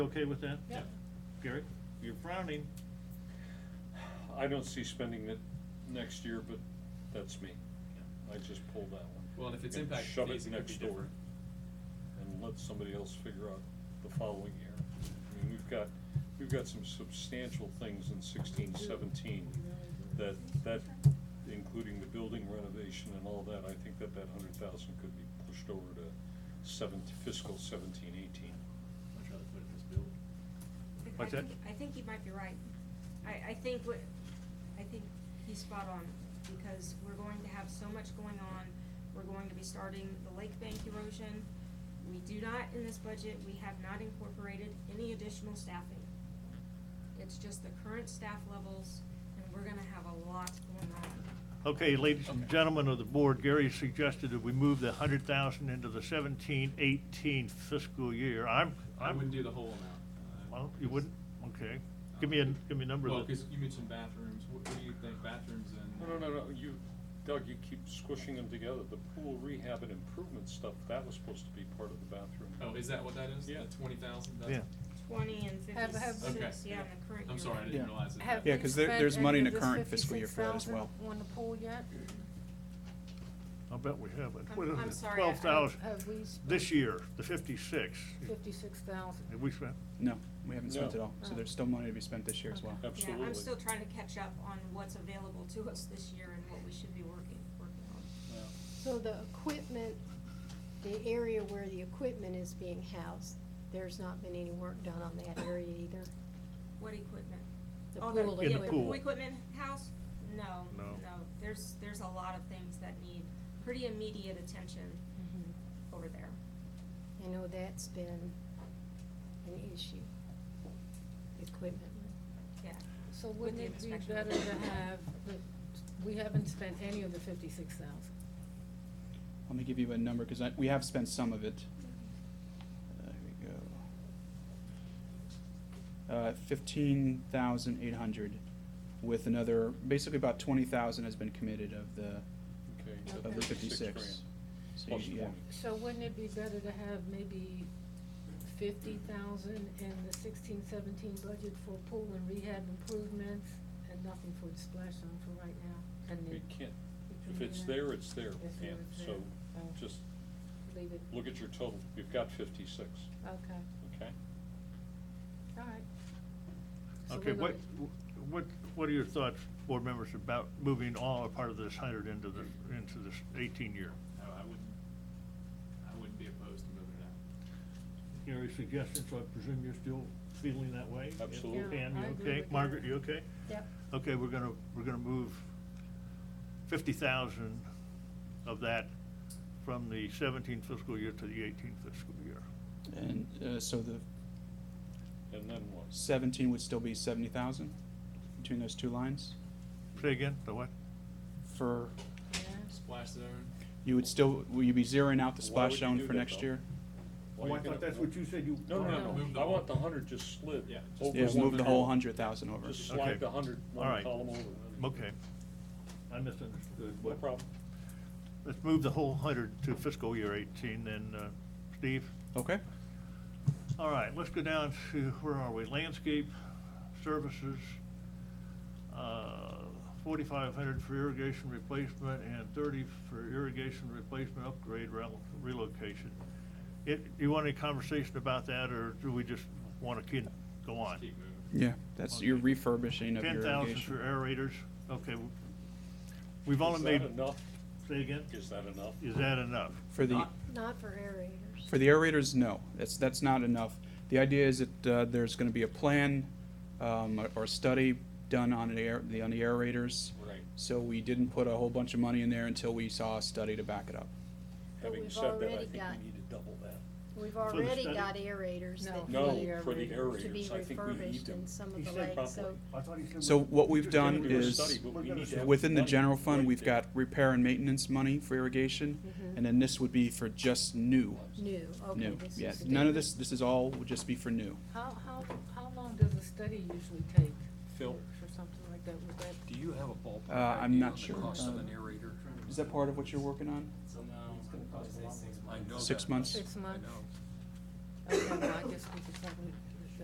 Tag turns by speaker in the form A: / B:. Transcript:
A: Okay with that?
B: Yeah.
A: Gary, you're frowning.
C: I don't see spending it next year, but that's me. I just pulled that one.
B: Well, and if it's
C: And
B: impact
C: shove it
B: fees, it could
C: next
B: be
C: door
B: different.
C: And let somebody else figure out the following year. I mean, we've got, we've got some substantial things in sixteen, seventeen that, that, including the building renovation and all that, I think that that hundred thousand could be pushed over to seven, fiscal seventeen, eighteen.
B: Much rather put it in this building.
D: Vic, I
A: What's that?
D: think, I think you might be right. I, I think what, I think he's spot on, because we're going to have so much going on. We're going to be starting the lake bank erosion. We do not, in this budget, we have not incorporated any additional staffing. It's just the current staff levels, and we're gonna have a lot going on.
A: Okay, ladies and gentlemen of the board, Gary suggested that we move the hundred thousand into the seventeen, eighteen fiscal year. I'm,
B: I
A: I'm.
B: wouldn't do the whole amount. uh,
A: Well, you wouldn't? Okay. Give
B: um,
A: me a, give me a number
B: Well,
A: that.
B: cause you mentioned bathrooms, what, what do you think, bathrooms and?
C: No, no, no, no, you, Doug, you keep squishing them together. The pool rehab and improvement stuff, that was supposed to be part of the bathroom.
B: Oh, is that what that is?
C: Yeah.
B: The twenty thousand?
A: Yeah.
D: Twenty and
E: Have- have-
D: fifty-six, yeah, in the current year.
B: I'm sorry, I didn't
F: Yeah.
B: realize it.
E: Have
F: Yeah,
E: we
F: 'cause there-
E: spent
F: there's money in
E: any
F: the
E: of this
F: current fiscal year for that as
E: 56,000
F: well.
E: On the pool yet?
A: I'll bet we have it.
D: I'm-
A: What is
D: I'm
A: it?
D: sorry, I-
A: Twelve thousand.
E: Have we spent?
A: This year, the fifty-six.
E: Fifty-six thousand.
A: Have we spent?
F: No, we haven't spent
C: No.
F: it all, so
E: Oh.
F: there's still money to be spent this year as well.
C: Okay.
D: Yeah,
C: Absolutely.
D: I'm still trying to catch up on what's available to us this year and what we should be working, working on.
C: Yeah.
G: So the equipment, the area where the equipment is being housed, there's not been any work done on that area either?
D: What equipment?
G: The
D: Oh,
G: pool
D: yeah,
A: In the pool.
D: equipment house? No,
A: No.
D: no, there's, there's a lot of things that need pretty immediate attention
E: Mm-hmm.
D: over there.
G: I know that's been an issue, the equipment.
D: Yeah,
E: So
D: With
E: wouldn't
D: the
E: it be
D: inspection.
E: better to have, the- we haven't spent any of the fifty-six thousand?
F: Let me give you a number, because I, we have spent some of it. Uh, Here we go. Uh, fifteen thousand eight hundred with another, basically about twenty thousand has been committed of the,
C: Okay. so
F: of the
E: Okay.
F: fifty-six.
C: grand.
F: So
C: Plus
F: you- yeah.
C: 20.
E: So wouldn't it be better to have maybe fifty thousand in the sixteen, seventeen budget for pool and rehab improvements and nothing for the splash zone for right now? And
C: We
E: then
C: can't,
E: we
C: if
E: can
C: it's
E: do that.
C: there, it's there,
E: If
C: yeah,
E: it's there.
C: so
E: Oh.
C: just
E: Leave it,
C: look at your total, you've got fifty-six,
E: okay,
C: okay?
E: all right. So
A: Okay,
E: we're
A: what,
E: gonna-
A: what, what are your thoughts, board members, about moving all or part of this hundred into the, into this eighteen year?
B: No, I wouldn't, I wouldn't be opposed to moving it out.
A: Gary's suggestions, I presume you're still feeling that way?
C: Absolutely.
A: Pam,
E: Yeah,
A: you
E: I agree
A: okay?
E: with
A: Margaret,
E: that.
A: you okay?
E: Yep.
A: Okay, we're gonna, we're gonna move fifty thousand of that from the seventeen fiscal year to the eighteen fiscal year.
F: And, uh, so the
C: And then what?
F: seventeen would still be seventy thousand between those two lines
A: Say again, the what?
F: for,
E: Yeah.
B: Splash zone,
F: you would still, will you be zeroing out the
C: Why
F: splash
C: would you do
F: zone for
C: that,
F: next
C: though?
F: year?
A: Oh,
C: Why you gonna-
A: said you.
C: No, no,
E: Move
C: no,
B: the
C: I want the hundred just slid.
B: Yeah, just
C: over
F: Yeah,
C: one
F: move the whole
C: column.
F: hundred thousand over.
C: Just
A: Okay.
C: slide the hundred
A: All
C: one
A: right.
C: column over.
A: Okay. I misunderstood.
C: No
A: What-
C: problem.
A: Let's move the whole hundred to fiscal year eighteen then, uh, Steve?
F: Okay,
A: All right, let's go down to, where are we? Landscape services, uh, forty-five hundred for irrigation replacement and thirty for irrigation replacement upgrade rel- relocation. It, you want any conversation about that, or do we just want to keep, go on?
B: keep moving.
F: yeah, that's your
A: Okay.
F: refurbishing of your
A: Ten thousand
F: irrigation.
A: for aerators, okay. w- We've only
C: Is
A: made,
C: that enough?
A: say again,
C: Is that enough?
A: is that enough?
F: For the,
B: Not-
G: Not for aerators.
F: for the aerators, no, that's, that's not enough. The idea is that, uh, there's gonna be a plan, um, or- or a study done on the air, the, on the aerators.
C: Right.
F: So we didn't put a whole bunch of money in there until we saw a study to back it up.
G: But
C: Having
G: we've
C: said that, I
G: already
C: think
G: got-
C: we need to double that.
G: We've
A: the
G: already
A: study?
G: got aerators
E: No.
G: that
C: No,
G: need
C: for the
G: to be
C: aerators, I think we need
G: refurbished
C: them.
G: in some
A: He
G: of the
A: said
G: lakes, so.
F: So what we've done
C: do a
F: is,
C: study, but we need to have
F: within the
C: money
F: general fund,
C: right
F: we've
C: there.
F: got repair and maintenance money for irrigation, and then this would be for just new,
G: Mm-hmm. New, okay.
F: new,
G: this
F: yeah.
G: is
F: None of
G: different.
F: this, this is all, would just be for new.
E: How, how, how long does a study usually take?
C: Phil?
E: For for something like that, would that?
H: Do you have a ballpark
F: Uh, I'm
H: idea
F: not
H: on the
F: sure.
H: cost of
F: Uh,
H: an aerator?
F: Is that part of what you're working on?
H: I know
F: Six
H: that.
F: months.
E: Six
H: I
E: months?
H: know.
E: Okay, well, I guess we could probably